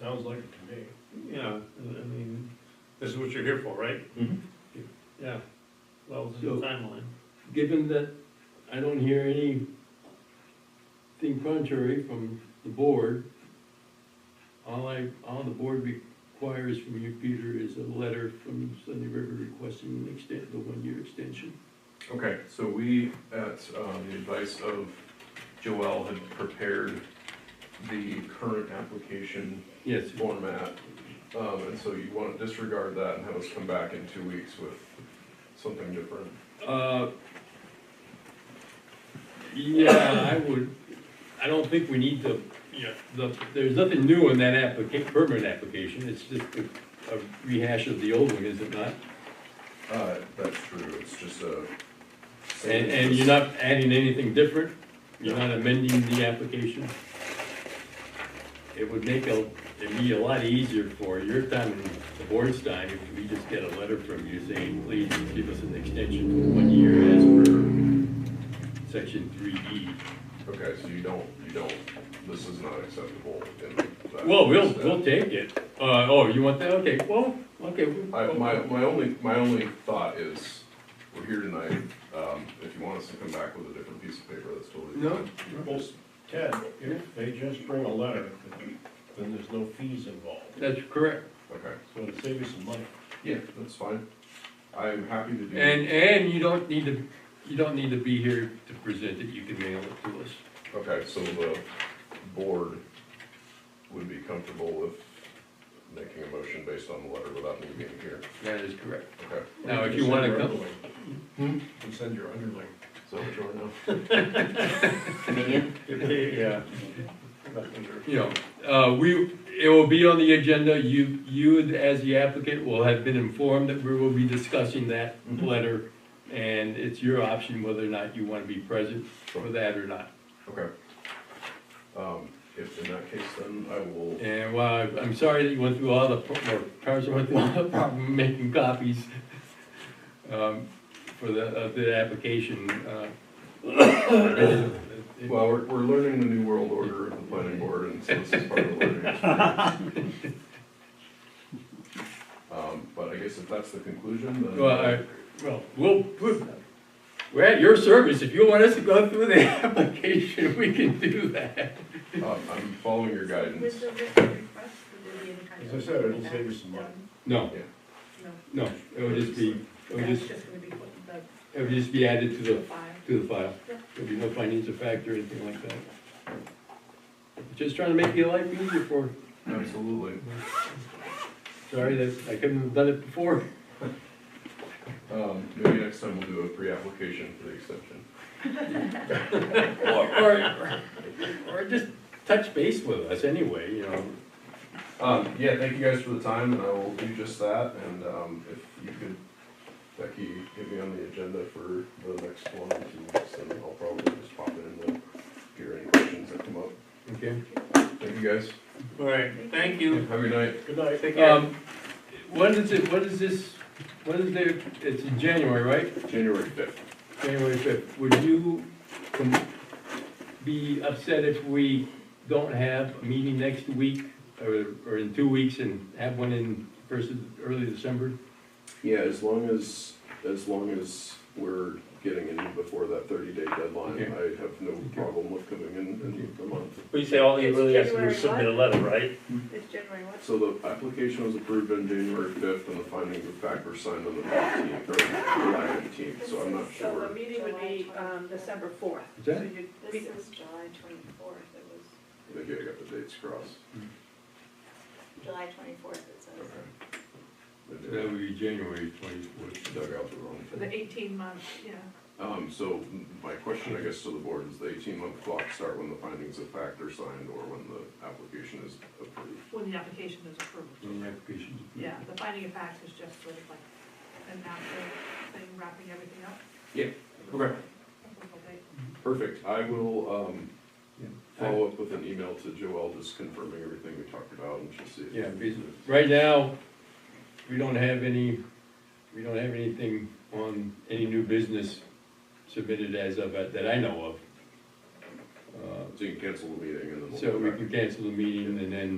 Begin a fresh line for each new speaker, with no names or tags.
Sounds like it to me.
Yeah, I mean, this is what you're here for, right?
Mhm.
Yeah, well, this is the timeline.
Given that I don't hear anything contrary from the board, all I, all the board requires from you, Peter, is a letter from Sunday River requesting an extent, the one-year extension.
Okay, so we, at um, the advice of Joel, had prepared the current application
Yes,
format. Um, and so you wanna disregard that and have us come back in two weeks with something different.
uh, yeah, I would, I don't think we need to
Yeah.
the, there's nothing new in that applica, permit application, it's just a a rehash of the old one, is it not?
Uh, that's true, it's just a.
And, and you're not adding anything different, you're not amending the application? It would make a, it'd be a lot easier for your time and the board's time if we just get a letter from you saying, please give us an extension for one year as per section three E.
Okay, so you don't, you don't, this is not acceptable in that.
Well, we'll, we'll take it, uh, oh, you want that, okay, well, okay. we-
I, my, my only, my only thought is, we're here tonight, um, if you want us to come back with a different piece of paper, that's totally.
No,
Well, Ted, if they just bring a letter, then there's no fees involved,
that's correct.
fine. Okay,
so it'll save you some money.
yeah, that's fine, I'm happy to do.
And, and you don't need to, you don't need to be here to present it, you can mail it to us.
Okay, so the board would be comfortable with making a motion based on the letter without me being here,
That is correct.
okay?
Now, if you wanna come,
come. Hmm? And send your underling.
So, sure enough.
Yeah.
you know, uh, we, it will be on the agenda, you, you as the applicant will have been informed that we will be discussing that
Mhm.
letter, and it's your option whether or not you wanna be present for that or not.
Okay. Um, if in that case, then I will,
And while, I- I'm sorry that you went through all the, pro- or Carson went through all the problem making copies, um, for the, of the application, uh. it-
well, we're, we're learning the new world order of the planning board, and so this is part of the learning experience. Um, but I guess if that's the conclusion, then.
Well, I, well, we'll, we'll- we're at your service, if you want us to go through the application, we can do that.
Um, I'm following your guidance.
With the written request, would there be any kind of?
As I said, it'll save you some money.
No,
No,
no, it would just be, it would
that's
just,
just gonna be put in
it would just be added to
the
the,
file.
to the file. There'd be no financial factor or anything like that. Just trying to make your life easier for,
Absolutely.
sorry that I couldn't have done it before.
Um, maybe next time we'll do a pre-application for the extension.
Or, or, or just touch base with us anyway, you know.
Um, yeah, thank you guys for the time, and I will do just that, and, um, if you could, Becky, get me on the agenda for the next one, in two weeks, then I'll probably just pop in and hear any questions that come up.
Okay.
Thank you guys.
All right, thank you.
Have a good night.
Good night.
Take care.
Um, what is it, what is this, what is there, it's in January, right?
January fifth.
January fifth, would you com- be upset if we don't have a meeting next week, or, or in two weeks, and have one in first, of- early December?
Yeah, as long as, as long as we're getting in before that thirty-day deadline,
Okay.
I have no problem with coming in in a month.
But you say all you really have to do is
January
submit a letter, right?
Hmm.
It's January what?
So the application was approved on January fifth, and the findings of fact were signed on the nineteenth, or July nineteenth, so I'm not
So
sure.
the meeting would be, um, December fourth.
Is that-
This is July twenty-fourth, it was,
Maybe I got the dates crossed.
July twenty-fourth, it says.
Okay.
So
Maybe
That would be January twenty-fourth.
I uh, Dug out the wrong
The
thing.
eighteen months, yeah.
Um, so my question, I guess, to the board is the eighteen month clock start when the findings of fact are signed or when the application is approved?
when the application is approved.
application.
Yeah, the finding of facts is just sort of like an after thing, wrapping everything up.
Yeah, okay.
Okay.
Perfect. I will, um,
Yeah.
follow up with an email to Joelle just confirming everything we talked about and she'll see. if-
Yeah, because right now, we don't have any, we don't have anything on any new business submitted as of, that I know of. Uh,
So you can cancel the meeting and then we'll.
So
come
we
back.
can cancel the meeting and then